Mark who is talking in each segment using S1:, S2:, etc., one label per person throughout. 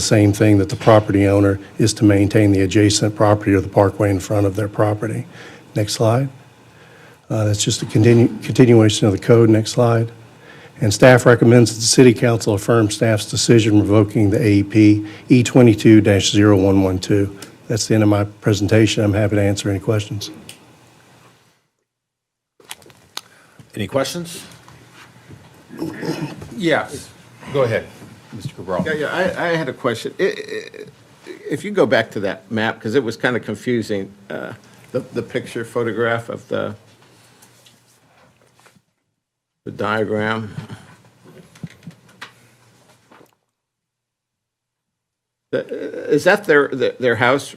S1: Same thing that the property owner is to maintain the adjacent property or the parkway in front of their property. Next slide. Uh, That's just a continu- continuation of the code. Next slide. And staff recommends that the city council affirm staff's decision revoking the E AEP E22-0112. That's the end of my presentation. I'm happy to answer any questions.
S2: Any questions? Yes, go ahead, Mr. Cabral.
S3: Yeah, yeah, I, I had a question. I- I- If you go back to that map, because it was kind of confusing, uh, the, the picture photograph of the, the diagram. The- Is that their, their their house?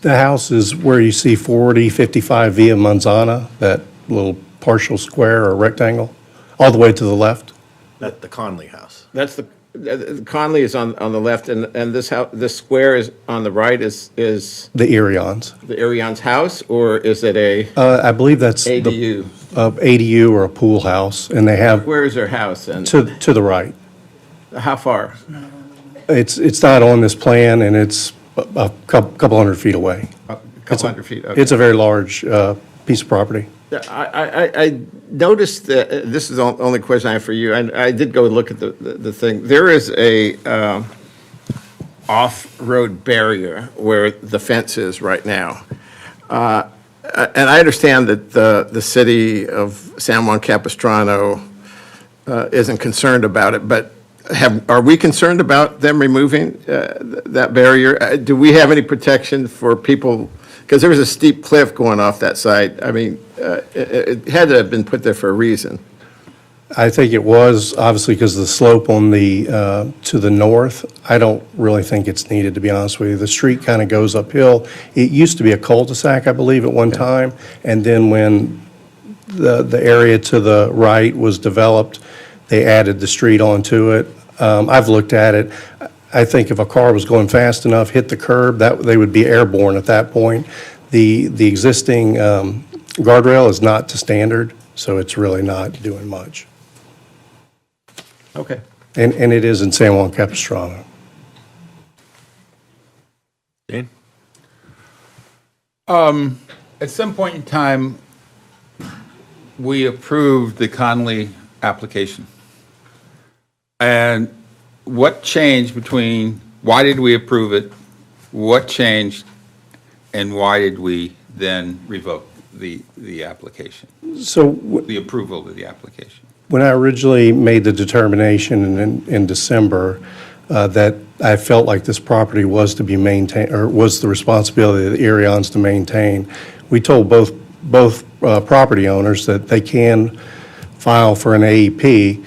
S1: The house is where you see 4055 Via Manzana, that little partial square or rectangle, all the way to the left.
S4: That the Conley house.
S3: That's the, uh, Conley is on, on the left, and, and this house, this square is, on the right is, is
S1: The Erions.
S3: the Arion's house, or is it a
S1: Uh, I believe that's the- uh,
S3: ADU?
S1: a ADU or a pool house, and they have,
S3: Where is their house, and
S1: to, to the right.
S3: how far?
S1: It's, it's not on this plan, and it's a- a cou- couple hundred feet away.
S3: A couple hundred feet, okay.
S1: It's a very large uh, piece of property.
S3: I, I, I- I noticed that, uh, this is the only question I have for you, and I did go look at the, the the thing. There is a um, off-road barrier where the fence is right now. Uh, And I understand that the, the city of San Juan Capistrano uh, isn't concerned about it, but have, are we concerned about them removing uh, th- that barrier? Uh, Do we have any protection for people? Because there was a steep cliff going off that side. I mean, uh, it it had to have been put there for a reason.
S1: I think it was, obviously, because of the slope on the, uh, to the north. I don't really think it's needed, to be honest with you. The street kind of goes uphill. It used to be a cul-de-sac, I believe, at one time, and then when the, the area to the right was developed, they added the street onto it. Um, I've looked at it. I think if a car was going fast enough, hit the curb, that, they would be airborne at that point. The, the existing um, guardrail is not to standard, so it's really not doing much.
S3: Okay.
S1: And, and it is in San Juan Capistrano.
S2: Dean?
S5: At some point in time, we approved the Conley application. And what changed between, why did we approve it? What changed? And why did we then revoke the, the application,
S1: So w-
S5: the approval of the application?
S1: When I originally made the determination in, in December uh, that I felt like this property was to be maintained, or was the responsibility of the Arians to maintain, we told both, both uh, property owners that they can file for an E AEP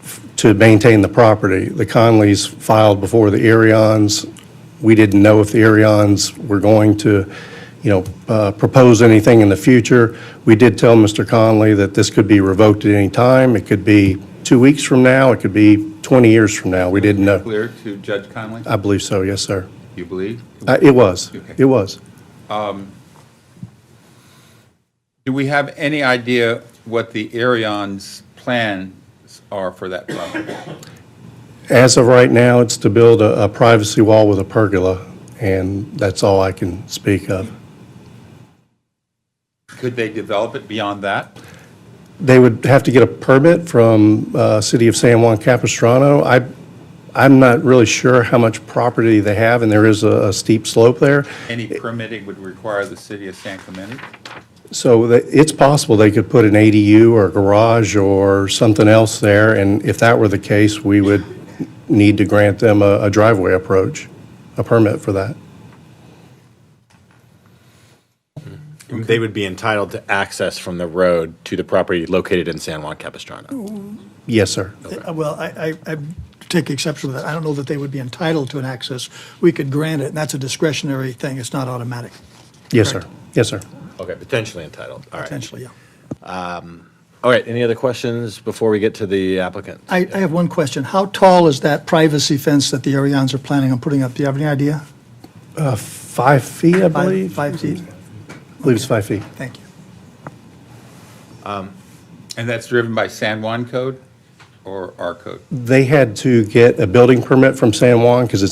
S1: f- to maintain the property. The Conleys filed before the Arians. We didn't know if the Arians were going to, you know, uh, propose anything in the future. We did tell Mr. Conley that this could be revoked at any time. It could be two weeks from now, it could be 20 years from now. We didn't know.
S5: Clear to Judge Conley,
S1: I believe so, yes, sir.
S5: you believe?
S1: Uh, It was, it was.
S5: Do we have any idea what the Arion's plans are for that property?
S1: As of right now, it's to build a a privacy wall with a pergola, and that's all I can speak of.
S5: Could they develop it beyond that?
S1: They would have to get a permit from uh, City of San Juan Capistrano. I, I'm not really sure how much property they have, and there is a a steep slope there.
S5: Any permitting would require the city of San Clemente?
S1: So that- it's possible they could put an ADU or a garage or something else there, and if that were the case, we would need to grant them a a driveway approach, a permit for that.
S4: They would be entitled to access from the road to the property located in San Juan Capistrano.
S1: Yes, sir.
S6: Uh, Well, I, I, I take exception with that. I don't know that they would be entitled to an access. We could grant it, and that's a discretionary thing. It's not automatic,
S1: Yes, sir.
S6: Correct.
S1: Yes, sir.
S4: Okay, potentially entitled, all right.
S6: potentially, yeah.
S4: All right, any other questions before we get to the applicant?
S6: I, I have one question. How tall is that privacy fence that the Arians are planning on putting up? Do you have any idea?
S1: Uh, Five feet, I
S6: Five-
S1: believe?
S6: Five feet?
S1: I believe it's five feet.
S6: Thank you.
S5: And that's driven by San Juan code or our code?
S1: They had to get a building permit from San Juan because it's